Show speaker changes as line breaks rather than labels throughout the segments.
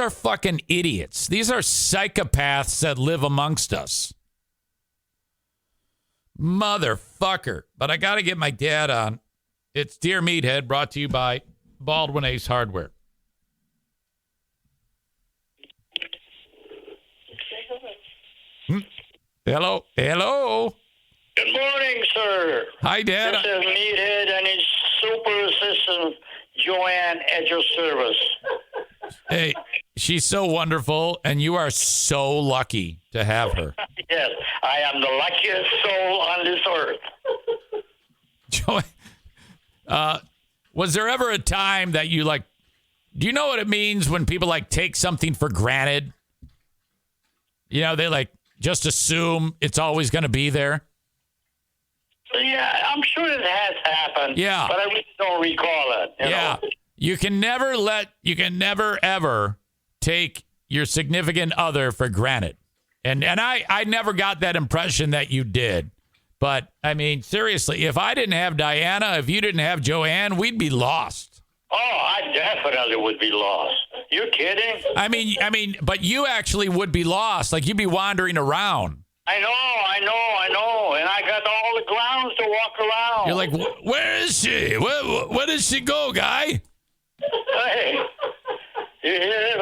are fucking idiots. These are psychopaths that live amongst us. Motherfucker. But I got to get my dad on. It's Dear Meathead brought to you by Baldwin Ace Hardware. Hmm? Hello. Hello.
Good morning, sir.
Hi, Dad.
This is Meathead and his super assistant, Joanne, at your service.
Hey, she's so wonderful, and you are so lucky to have her.
Yes, I am the luckiest soul on this earth.
Joey, uh, was there ever a time that you like? Do you know what it means when people like take something for granted? You know, they like just assume it's always going to be there.
Yeah, I'm sure it has happened.
Yeah.
But I really don't recall it. you
yeah,
know.
you can never let you can never ever take your significant other for granted. And and I I never got that impression that you did. But I mean, seriously, if I didn't have Diana, if you didn't have Joanne, we'd be lost.
Oh, I definitely would be lost. You kidding?
I mean, I mean, but you actually would be lost. Like you'd be wandering around.
I know, I know, I know. And I got all the grounds to walk around.
You're like, "Wh- where is she? Where, wh- where did she go, guy?
hey, you hear it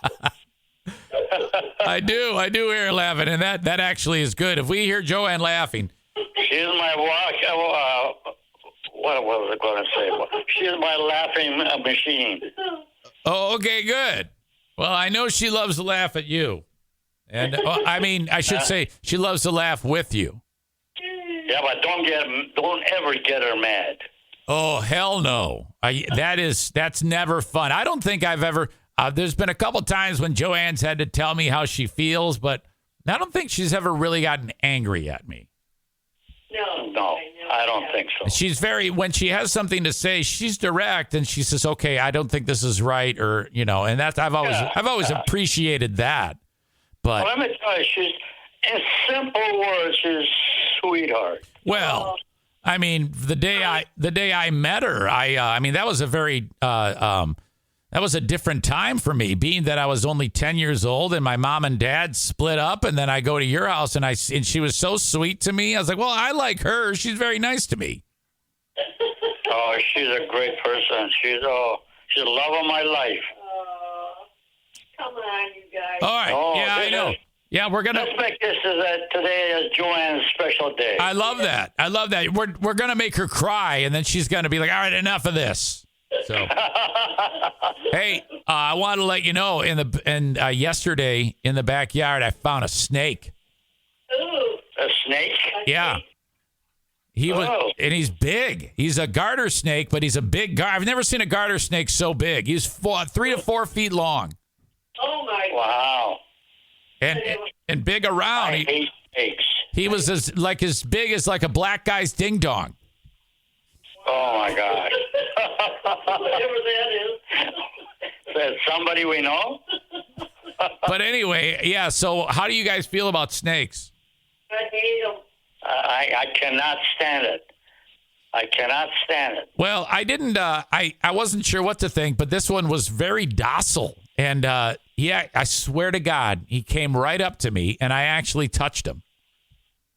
laughing?
I do, I do hear her laughing, and that that actually is good. If we hear Joanne laughing,
She's my walk. Uh, what was I going to say? She's my laughing uh, machine.
oh, okay, good. Well, I know she loves to laugh at you, and well, I mean, I should say she loves to laugh with you.
Yeah, but don't get, don't ever get her mad.
Oh hell no! I, that is that's never fun. I don't think I've ever. Uh, there's been a couple times when Joanne's had to tell me how she feels, but I don't think she's ever really gotten angry at me.
No.
No, I don't think so.
She's very when she has something to say, she's direct and she says, "Okay, I don't think this is right," or you know, and that's I've always
Yeah.
I've always appreciated that. But
Let me tell you, she's in simple words, she's sweetheart.
Well, I mean, the day I the day I met her, I uh, I mean that was a very uh, um, that was a different time for me, being that I was only ten years old and my mom and dad split up, and then I go to your house and I s- and she was so sweet to me. I was like, well, I like her; she's very nice to me.
Oh, she's a great person. She's oh, she's the love of my life.
Aw. come on, you guys.
All right,
Oh,
yeah, I
this
know.
is-
Yeah, we're gonna.
Let's make this as a, today as Joanne's special day.
I love that. I love that. We're we're gonna make her cry, and then she's gonna be like, "All right, enough of this." So, hey, uh, I want to let you know in the and uh, yesterday in the backyard, I found a snake.
Ooh.
a snake?
Yeah, he was,
Oh.
and he's big. He's a garter snake, but he's a big gar. I've never seen a garter snake so big. He's four, three to four feet long,
Oh my
Wow.
and and big around.
I
He,
hate snakes.
he was as like as big as like a black guy's ding dong.
Oh my God.
whatever that is.
That somebody we know?
But anyway, yeah. So, how do you guys feel about snakes?
I hate 'em.
I, I cannot stand it. I cannot stand it.
Well, I didn't. Uh, I I wasn't sure what to think, but this one was very docile, and uh, yeah, I swear to God, he came right up to me, and I actually touched him.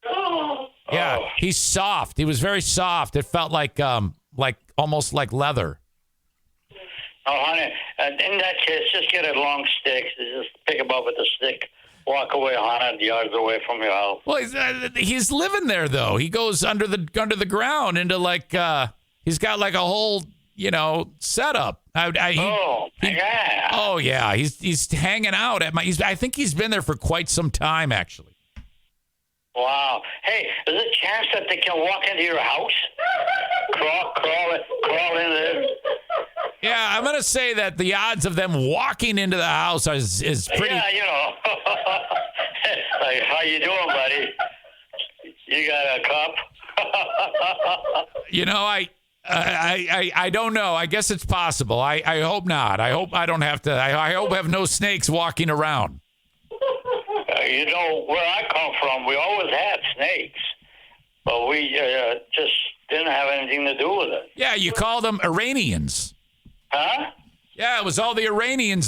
Oh.
Yeah,
Oh.
he's soft. He was very soft. It felt like um like almost like leather.
Oh, honey, uh, in that case, just get a long stick. Just pick him up with a stick. Walk away 100 yards away from your house.
Well, he's uh, he's living there though. He goes under the under the ground into like uh he's got like a whole you know setup. I, I, he-
Oh, yeah.
oh yeah, he's he's hanging out at my. He's, I think he's been there for quite some time actually. Oh.
Wow. Hey, is there a chance that they can walk into your house? crawl, crawl, crawl in there.
Yeah, I'm gonna say that the odds of them walking into the house is is pretty.
Yeah, you know. like, how you doing, buddy? You got a cup?
You know, I. I, I I don't know. I guess it's possible. I, I hope not. I hope I don't have to. I, I hope I have no snakes walking around.
Uh, you know, where I come from, we always had snakes, but we uh, just didn't have anything to do with it.
Yeah, you call them Iranians.
Huh?
Yeah, it was all the Iranians